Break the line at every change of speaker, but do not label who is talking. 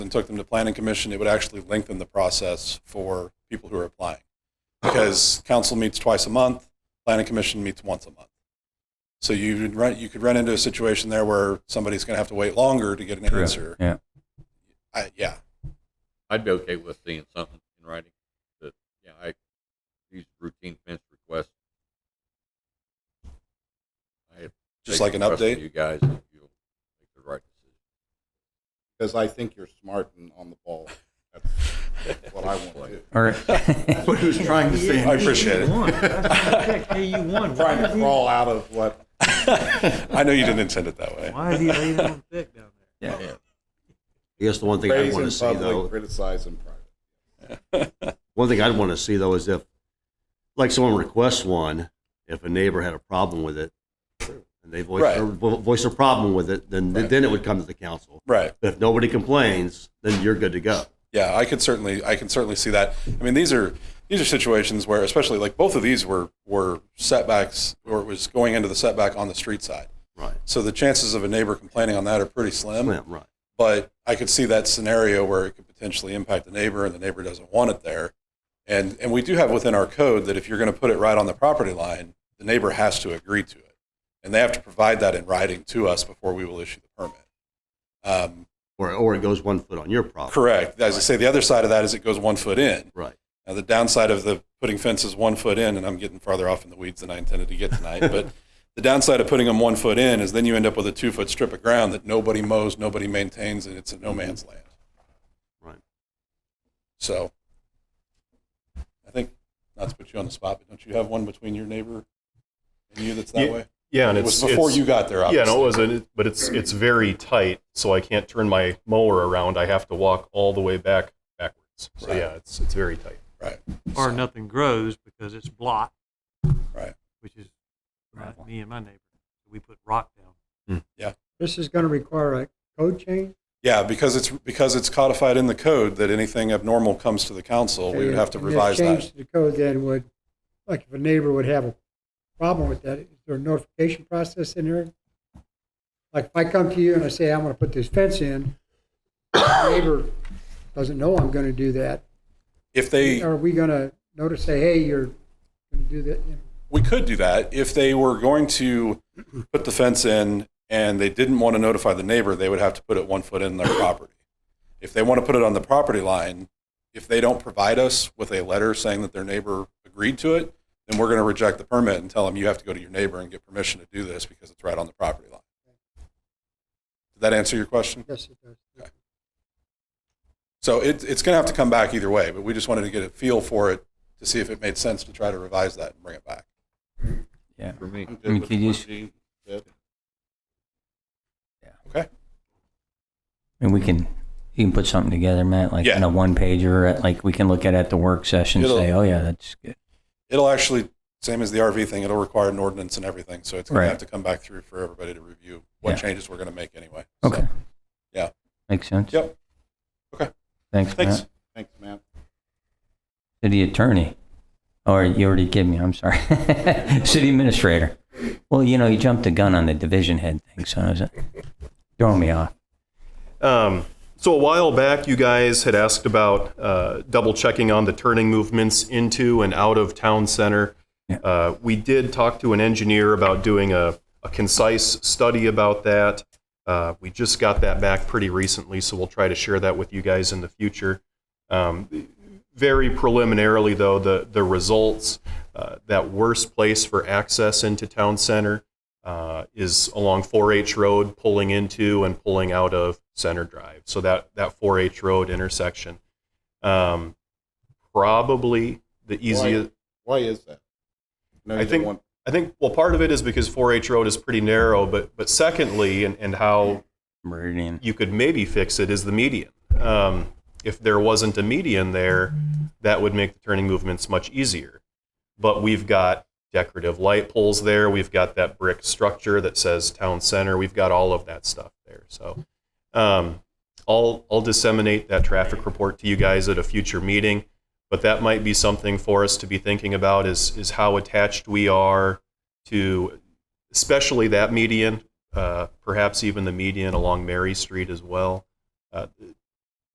and took them to planning commission, it would actually lengthen the process for people who are applying. Because council meets twice a month, planning commission meets once a month. So you would run, you could run into a situation there where somebody's going to have to wait longer to get an answer.
Yeah.
I, yeah,
I'd be okay with seeing something in writing that, yeah, I, these routine fence requests. I
just
take
like an
the trust of
update.
You guys, if you'll make the right decision.
because I think you're smart and on the ball. That's what I want to do.
All right.
What he was trying to say.
I appreciate it.
KU one. Why
Trying to
is he-
crawl out of what,
I know you didn't intend it that way.
Why is he laying on thick down there?
I guess the one thing I'd
praise
want to
in
see though,
public, criticize in private.
one thing I'd want to see though is if, like someone requests one, if a neighbor had a problem with it, and they voice,
Right.
their vo- voice a problem with it, then,
Right.
then it would come to the council.
Right.
But if nobody complains, then you're good to go.
Yeah, I could certainly, I can certainly see that. I mean, these are these are situations where, especially like both of these were were setbacks, or it was going into the setback on the street side.
Right.
So the chances of a neighbor complaining on that are pretty slim.
Slim, right.
But I could see that scenario where it could potentially impact the neighbor, and the neighbor doesn't want it there. And and we do have within our code that if you're going to put it right on the property line, the neighbor has to agree to it, and they have to provide that in writing to us before we will issue the permit. Um,
Or, or it goes one foot on your property.
correct. As I say, the other side of that is it goes one foot in.
Right.
Now, the downside of the putting fences one foot in, and I'm getting farther off in the weeds than I intended to get tonight, but the downside of putting them one foot in is then you end up with a two foot strip of ground that nobody mows, nobody maintains, and it's a no man's land.
Right.
So I think, not to put you on the spot, but don't you have one between your neighbor and you that's that
Ye-
way?
Yeah, and
It
it's
was before
it's-
you got there, obviously.
Yeah, no, it wasn't. But it's it's very tight, so I can't turn my mower around. I have to walk all the way back backwards. So
Right.
yeah, it's it's very tight.
Right.
Or
So-
nothing grows because it's blocked.
Right.
Which is right, me and my neighbor. We put rock down.
This is going to require a code change?
Yeah, because it's, because it's codified in the code that anything abnormal comes to the council, we would have to
And this
revise that.
Change to the code then would, like if a neighbor would have a problem with that, is there a notification process in there? Like if I come to you and I say, I'm going to put this fence in, the neighbor doesn't know I'm going to do that.
If they.
Are we going to notice, say, hey, you're going to do that? you know?
We could do that. If they were going to put the fence in and they didn't want to notify the neighbor, they would have to put it one foot in their property. If they want to put it on the property line, if they don't provide us with a letter saying that their neighbor agreed to it, then we're going to reject the permit and tell them you have to go to your neighbor and get permission to do this because it's right on the property line. Did that answer your question?
Yes, it does.
So it, it's going to have to come back either way, but we just wanted to get a feel for it to see if it made sense to try to revise that and bring it back.
Yeah.
For me,
I'm
I
good
mean,
with
can you
what
s-
Gene said.
And we can, you can put something together, Matt, like
Yeah.
in a one pager, at- like we can look at it at the work session,
It'll-
say, oh yeah, that's good.
It'll actually, same as the RV thing, it'll require an ordinance and everything, so it's gonna
Right.
have to come back through for everybody to review what
Yeah.
changes we're gonna make anyway. So,
Okay.
yeah.
Makes sense.
Yep. Okay.
Thanks,
Thanks.
Matt.
Thanks, man.
City attorney. Or you already gave me, I'm sorry. City administrator. Well, you know, you jumped the gun on the division head thing, so I was uh, throwing me off.
Um, so a while back, you guys had asked about uh, double checking on the turning movements into and out of town center.
Yeah.
Uh, we did talk to an engineer about doing a, a concise study about that. Uh, we just got that back pretty recently, so we'll try to share that with you guys in the future. Um, very preliminarily, though, the the results uh, that worst place for access into town center uh, is along 4H Road, pulling into and pulling out of Center Drive. So that that 4H Road intersection, um, probably the easiest.
Why is that? No,
I
you don't
think-
want-
I think well, part of it is because 4H Road is pretty narrow, but but secondly, and, and how
Meridian.
you could maybe fix it is the median. Um, if there wasn't a median there, that would make the turning movements much easier. But we've got decorative light poles there. We've got that brick structure that says town center. We've got all of that stuff there. So um, I'll, I'll disseminate that traffic report to you guys at a future meeting. But that might be something for us to be thinking about is, is how attached we are to especially that median, uh, perhaps even the median along Mary Street as well. Uh,